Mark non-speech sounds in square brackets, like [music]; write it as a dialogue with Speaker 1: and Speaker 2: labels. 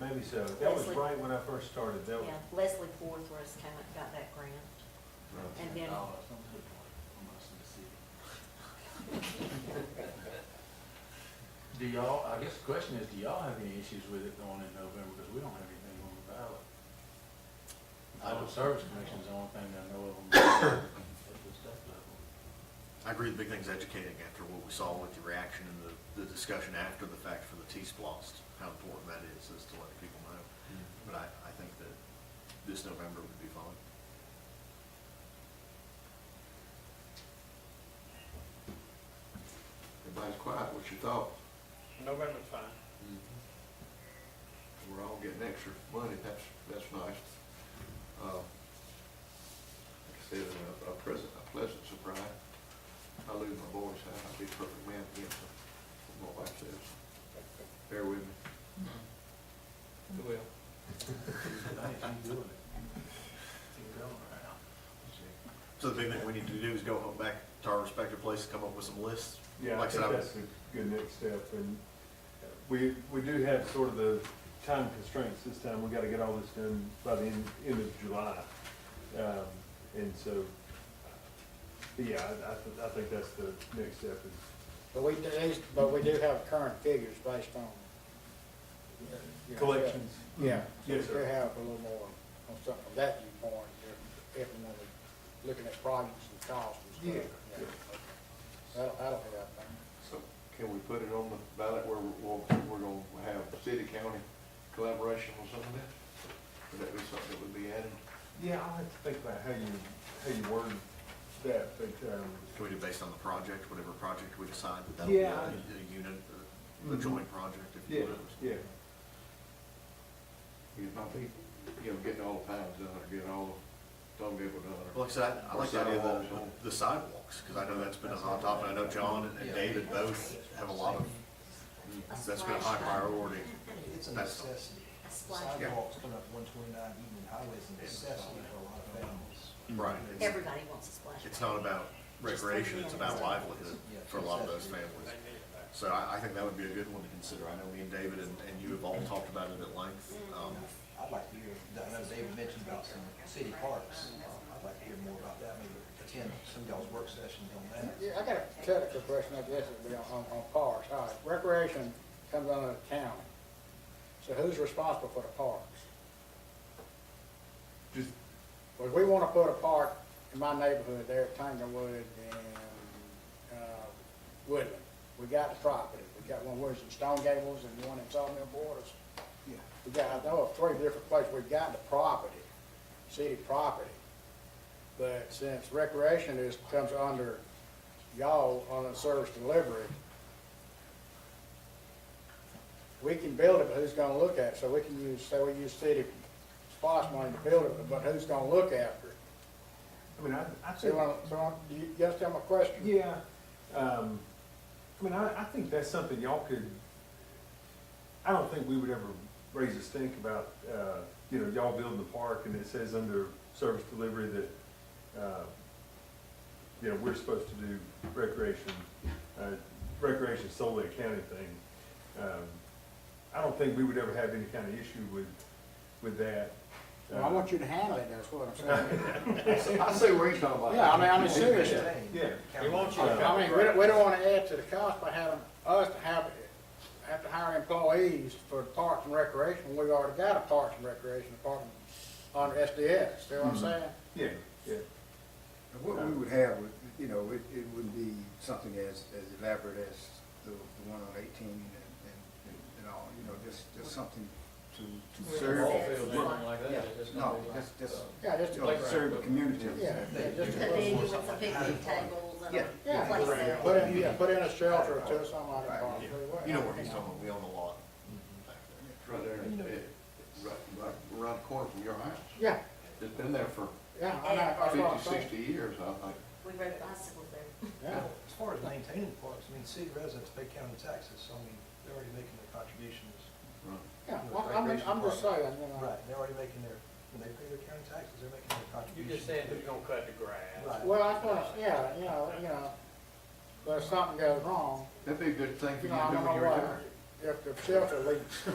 Speaker 1: Maybe so. That was
Speaker 2: Leslie.
Speaker 1: right when I first started. That was,
Speaker 2: Yeah, Leslie Forthworth came up, got that grant. And then-
Speaker 3: Do y'all, I guess the question is, do y'all have any issues with it going in November, because we don't have anything on the ballot? Idle Service Commission's the only thing I
Speaker 4: [coughs]
Speaker 3: know of them at the state level.
Speaker 5: I agree, the big thing's educating after what we saw with the reaction and the, the discussion after the fact for the T-Splost, how important that is, is to let people know.
Speaker 1: Mm-hmm.
Speaker 5: But I, I think that this November would be fine.
Speaker 6: Everybody's quiet, what's your thought?
Speaker 7: November's fine.
Speaker 6: Mm-hmm. We're all getting extra money, that's, that's nice. Uh, Like I said, a- a present, a pleasant surprise. I lose my voice, I- I'll be a perfect man again, what my wife says. Bear with me.
Speaker 7: It will.
Speaker 3: Thanks, you doing it. Keep going around.
Speaker 5: So the big thing we need to do is go home back to our respective places, come up with some lists.
Speaker 1: yeah, I
Speaker 5: Like I said,
Speaker 1: think
Speaker 5: I-
Speaker 1: that's a good next step. And we, we do have sort of the time constraints this time. We gotta get all this done by the end, end of July. Um, and so, but yeah, I, I, th- I think that's the next step is
Speaker 8: But we, these- but we do have current figures based on. you know,
Speaker 1: collections.
Speaker 8: Yeah.
Speaker 1: Yes,
Speaker 8: We do
Speaker 1: sir.
Speaker 8: have a little more on something from that viewpoint, if, if and when we're looking at projects and costs and
Speaker 1: Yeah,
Speaker 8: stuff.
Speaker 1: yeah.
Speaker 8: okay. That'll, that'll help, I think.
Speaker 6: So can we put it on the ballot where we're, we'll- we're gonna have city-county collaboration on some of that? Would that be something that would be added?
Speaker 1: Yeah, I'll have to think about how you, how you word that, but, um,
Speaker 5: Can we do based on the project, whatever project we decide that that'll be a,
Speaker 1: Yeah.
Speaker 5: a unit, a- a joint project, if
Speaker 1: yeah,
Speaker 5: you will.
Speaker 1: yeah.
Speaker 6: Because my people, you know, getting all the pines done, or getting all the thumbnail done, or
Speaker 5: Well, like I said, I- I like the idea of the- the sidewalks, because I know that's been a hot topic, I know John and- and David both have a lot of,
Speaker 2: A
Speaker 5: that's been a
Speaker 2: splash
Speaker 5: high
Speaker 2: pad.
Speaker 5: priority.
Speaker 9: It's a
Speaker 5: That's-
Speaker 9: necessity.
Speaker 2: A splash pad.
Speaker 9: Sidewalks coming up one twenty-nine, even highways, a necessity for a lot of families.
Speaker 5: Right.
Speaker 2: Everybody wants a splash pad.
Speaker 5: It's not about recreation, it's about livelihood for a lot of those families. So I, I think that would be a good one to consider. I know me and David and, and you have all talked about it at length. Um,
Speaker 9: I'd like to hear, I know David mentioned about some city parks, Um, I'd like to hear more about that, maybe attend some of y'all's work sessions on that.
Speaker 8: Yeah, I got a technical question, I guess it'd be on, on on parks, all right, recreation comes under the county. So who's responsible for the parks?
Speaker 1: Just,
Speaker 8: Well, if we wanna put a park in my neighborhood there at Tanglewood and, uh, Woodland. We got the property, we got one, where's in Stone Gables and one in Sawmill Borders.
Speaker 9: Yeah.
Speaker 8: We got, I know of three different places, we got the property, city property. But since recreation is, comes under y'all on a service delivery, we can build it, but who's gonna look at it? So we can use, say we use city SPOS money to build it, but who's gonna look after it?
Speaker 1: I mean, I, I
Speaker 8: So,
Speaker 1: think.
Speaker 8: you wanna- so, you- you guys tell my question?
Speaker 1: Yeah, um, I mean, I, I think that's something y'all could, I don't think we would ever raise a stink about, uh, you know, y'all building the park and it says under service delivery that, uh, you know, we're supposed to do recreation, uh, recreation solely a county thing. Um, I don't think we would ever have any kind of issue with, with that.
Speaker 8: Well, I want you to handle it, that's what I'm saying.
Speaker 6: I see where he's talking about.
Speaker 8: Yeah, I mean, I'm serious.
Speaker 1: Yeah.
Speaker 9: We want you
Speaker 8: I mean, we don't, we don't wanna add to the cost by having us to have, have to hire employees for parks and recreation. We already got a parks and recreation department under SDS, see what I'm saying?
Speaker 1: Uh, Yeah, yeah,
Speaker 4: And What we would have, would you know, it, it wouldn't be something as, as elaborate as the, the one on eighteen and, and, and- and all, you know, just, just something to, to serve. No, just, just,
Speaker 8: Yeah, just
Speaker 4: you
Speaker 8: to
Speaker 4: know,
Speaker 8: play,
Speaker 4: serve the community.
Speaker 8: yeah, yeah, just to
Speaker 2: And then you
Speaker 8: play.
Speaker 2: want some picnic tables and
Speaker 4: Yeah.
Speaker 2: a
Speaker 8: Yeah.
Speaker 2: place
Speaker 8: Yeah,
Speaker 2: there.
Speaker 8: Put in, yeah, put in a shelter or two, something like that.
Speaker 4: Right,
Speaker 5: You know where he's talking about, we own a lot. back there.
Speaker 6: Right there, it, right, right around the corner from your house.
Speaker 8: Yeah,
Speaker 6: It's been there for
Speaker 8: yeah, I know, that's what I'm
Speaker 6: fifty,
Speaker 8: saying.
Speaker 6: sixty years, I think.
Speaker 2: We rode bicycles there.
Speaker 8: Yeah.
Speaker 9: As far as maintaining parks, I mean, city residents pay county taxes, so I mean, they're already making their contributions.
Speaker 6: Right.
Speaker 8: Yeah, well, I'm, I'm- I'm just saying, you know.
Speaker 9: Right, they're already making their, when they pay their county taxes, they're making their
Speaker 7: You
Speaker 9: contributions.
Speaker 7: just said who's gonna cut the grass.
Speaker 9: Right.
Speaker 8: Well, I thought, yeah, you know, you know, but if something goes wrong,
Speaker 6: That'd be a good thing for
Speaker 8: you
Speaker 6: you
Speaker 8: know,
Speaker 6: to do in
Speaker 8: I don't know
Speaker 6: your yard.
Speaker 8: what, if the shelter leaks,